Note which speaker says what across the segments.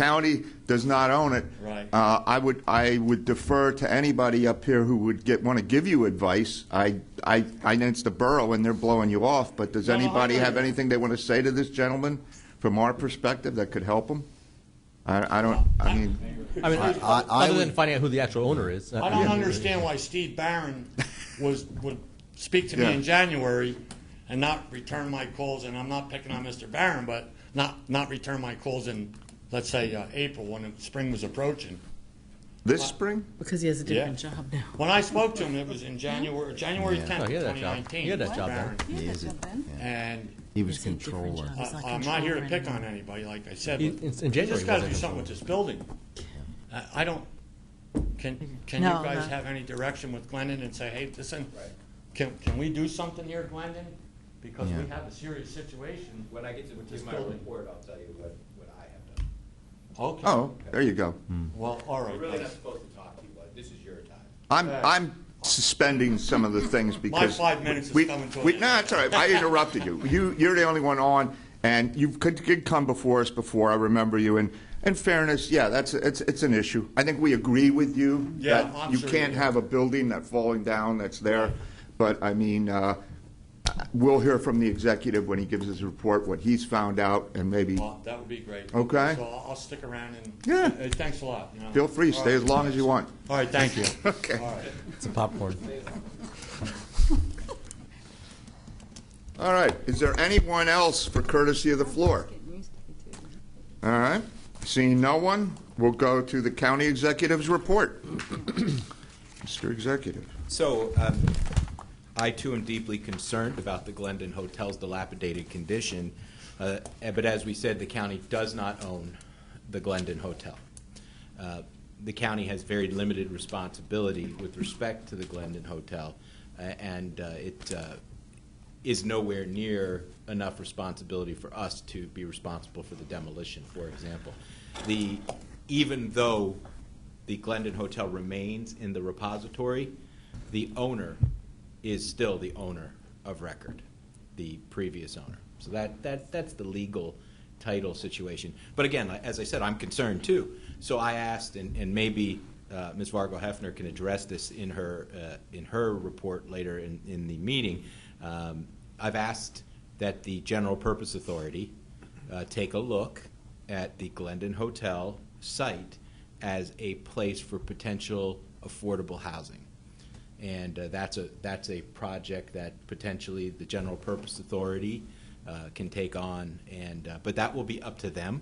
Speaker 1: county does not own it.
Speaker 2: Right.
Speaker 1: Uh, I would, I would defer to anybody up here who would get, want to give you advice. I, I, I know it's the borough and they're blowing you off, but does
Speaker 2: No, no, I
Speaker 1: anybody
Speaker 2: know.
Speaker 1: have anything they want to say to this gentleman from our perspective that could help him? I, I don't, I mean,
Speaker 3: I mean,
Speaker 4: I- I
Speaker 3: other than
Speaker 4: would-
Speaker 3: finding out who the actual owner is. uh,
Speaker 2: I don't understand why Steve Barron was, would speak to me
Speaker 1: Yeah.
Speaker 2: in January and not return my calls, and I'm not picking on Mr. Barron, but not, not return my calls in, let's say, uh, April, when spring was approaching.
Speaker 1: this spring?
Speaker 5: Because he has a
Speaker 2: Yeah.
Speaker 5: different job now.
Speaker 2: When I spoke to him, it was in January, January tenth,
Speaker 3: Oh, he had that
Speaker 2: twenty
Speaker 3: job.
Speaker 2: nineteen.
Speaker 3: He had that job
Speaker 2: Barron.
Speaker 3: there.
Speaker 4: Yeah, is it? Yeah.
Speaker 2: And
Speaker 4: He was
Speaker 5: It's a different
Speaker 4: controller.
Speaker 5: job.
Speaker 2: I-
Speaker 5: It's not
Speaker 2: I'm not here to
Speaker 5: control
Speaker 2: pick on
Speaker 5: anymore.
Speaker 2: anybody, like I said,
Speaker 3: In-
Speaker 2: but
Speaker 3: in
Speaker 2: we
Speaker 3: January
Speaker 2: just gotta
Speaker 3: wasn't
Speaker 2: do
Speaker 3: it?
Speaker 2: something with this building. I- I don't, can, can you
Speaker 5: No,
Speaker 2: guys
Speaker 5: no.
Speaker 2: have any direction with Glendon and say, hey, listen, can, can we do something here, Glendon? Because we
Speaker 4: Yeah.
Speaker 2: have a serious situation.
Speaker 6: When I get to
Speaker 2: this
Speaker 6: give my
Speaker 2: building.
Speaker 6: report, I'll tell you what, what I have done.
Speaker 2: Okay.
Speaker 1: Oh, there you go.
Speaker 2: Well, all
Speaker 6: We're
Speaker 2: right,
Speaker 6: really not
Speaker 2: guys.
Speaker 6: supposed to talk to you, but this is your time.
Speaker 1: I'm, I'm suspending some of the things because.
Speaker 2: five minutes is
Speaker 1: we-
Speaker 2: coming to an
Speaker 1: we-
Speaker 2: end.
Speaker 1: No, that's all right. I interrupted you. You, you're the only one on, and you could, could come before us before, I remember you. And in fairness, yeah, that's, it's, it's an issue. I think we agree with you.
Speaker 2: Yeah,
Speaker 1: that
Speaker 2: I'm
Speaker 1: You
Speaker 2: sure you
Speaker 1: can't
Speaker 2: do.
Speaker 1: have a building that falling down that's there. But, I mean, uh, we'll hear from the executive when he gives his report, what he's found out, and maybe,
Speaker 2: Well, that would be great.
Speaker 1: Okay.
Speaker 2: So I'll, I'll stick around and.
Speaker 1: Yeah.
Speaker 2: Hey, Thanks a lot. you know.
Speaker 1: feel free,
Speaker 2: All
Speaker 1: stay as
Speaker 2: right.
Speaker 1: long as you want.
Speaker 2: All right, thank you.
Speaker 1: Okay.
Speaker 2: All right.
Speaker 3: It's popcorn.
Speaker 1: All right, is there anyone else for courtesy of the floor? All right, seeing no one, we'll go to the county executive's report. Mr. Executive.
Speaker 6: So, um, I too am deeply concerned about the Glendon Hotel's dilapidated condition, uh, but as we said, the county does not own the Glendon Hotel. Uh, The county has very limited responsibility with respect to the Glendon Hotel, uh, and uh, it uh, is nowhere near enough responsibility for us to be responsible for the demolition, for example. The, even though the Glendon Hotel remains in the repository, the owner is still the owner of record, the previous owner. So that, that, that's the legal title situation. But again, I- as I said, I'm concerned too. So I asked, and, and maybe uh, Ms. Vargo Hefner can address this in her, uh, in her report later in, in the meeting. Um, I've asked that the General Purpose Authority uh, take a look at the Glendon Hotel site as a place for potential affordable housing. And uh, that's a, that's a project that potentially the General Purpose Authority uh, can take on, and, uh, but that will be up to them.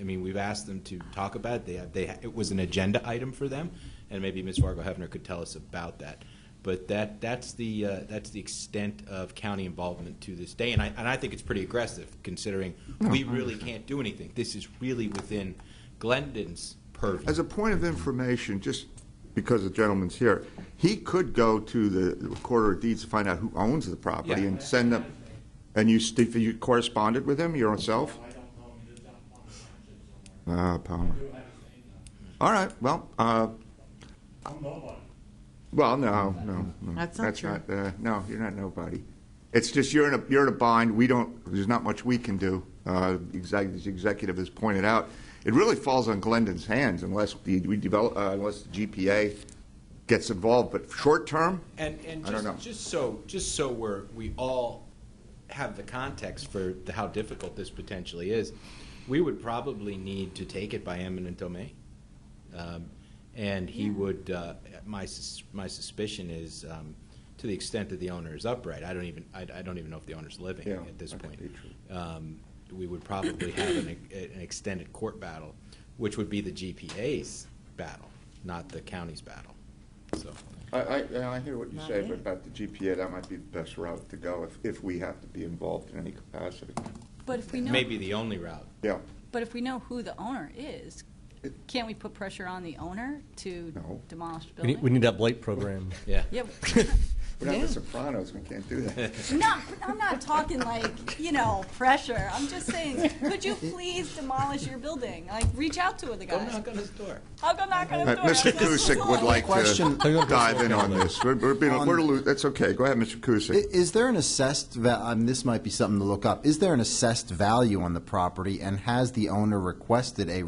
Speaker 6: I mean, we've asked them to talk about it, they, they, it was an agenda item for them, and maybe Ms. Fargo Hefner could tell us about that. But that, that's the, uh, that's the extent of county involvement to this day, and I, and I think it's pretty aggressive, considering we really can't do anything. This is really within Glendon's purview.
Speaker 1: As a point of information, just because the gentleman's here, he could go to the recorder of deeds to find out who owns the property
Speaker 6: Yeah.
Speaker 1: and send them, and you, st- you corresponded with him yourself?
Speaker 2: I don't know, he lives out in
Speaker 1: Ah,
Speaker 2: Palm Township
Speaker 1: Palmer.
Speaker 2: somewhere.
Speaker 1: All right, well, uh,
Speaker 2: I'm nobody.
Speaker 1: Well, no, no, no.
Speaker 5: That's not true.
Speaker 1: uh, no, you're not nobody. It's just you're in a you're in a bind. We don't. There's not much we can do. Uh, exactly as the executive has pointed out, it really falls on Glendon's hands unless the, we develop uh, unless the GPA gets involved. But short term,
Speaker 6: And, and
Speaker 1: I don't know.
Speaker 6: just, just so, just so we're, we all have the context for the- how difficult this potentially is, we would probably need to take it by eminent domain. Um, And he would, uh, my, sus- my suspicion is, um, to the extent that the owner is upright, I don't even, I, I don't even know if the owner's living
Speaker 1: Yeah,
Speaker 6: at this
Speaker 1: that could
Speaker 6: point.
Speaker 1: be true.
Speaker 6: Um, We would probably have an, an extended court battle, which would be the GPA's battle, not the county's battle, so.
Speaker 1: I, I, yeah, I hear what you
Speaker 5: Not
Speaker 1: say,
Speaker 5: yet.
Speaker 1: but about the GPA, that might be the best route to go if, if we have to be involved in any capacity.
Speaker 7: But if we know,
Speaker 6: Maybe the only route.
Speaker 1: Yeah,
Speaker 7: but if we know who the owner is, can't we put pressure on the owner to
Speaker 1: No.
Speaker 7: demolish the
Speaker 3: We need,
Speaker 7: building?
Speaker 3: we need that blight program.
Speaker 6: Yeah.
Speaker 7: Yeah,
Speaker 1: we're not
Speaker 7: Yeah.
Speaker 1: the Sopranos. We can't do that.
Speaker 7: no, I'm not talking like, you know, pressure. I'm just saying, could you please demolish your building? Like, reach out to the
Speaker 6: Go
Speaker 7: guys.
Speaker 6: knock on his door.
Speaker 7: I'll go knock on
Speaker 1: Uh,
Speaker 7: the door.
Speaker 1: Mr.
Speaker 7: That's what's
Speaker 1: Kusick would
Speaker 7: wrong.
Speaker 1: like
Speaker 4: Question-
Speaker 1: to dive in on this. We're, we're being,
Speaker 4: On-
Speaker 1: we're, lo- that's okay. Go ahead, Mr.
Speaker 4: I-
Speaker 1: Kusick.
Speaker 4: Is there an assessed, va- um, this might be something to look up, is there an assessed value on the property, and has the owner requested a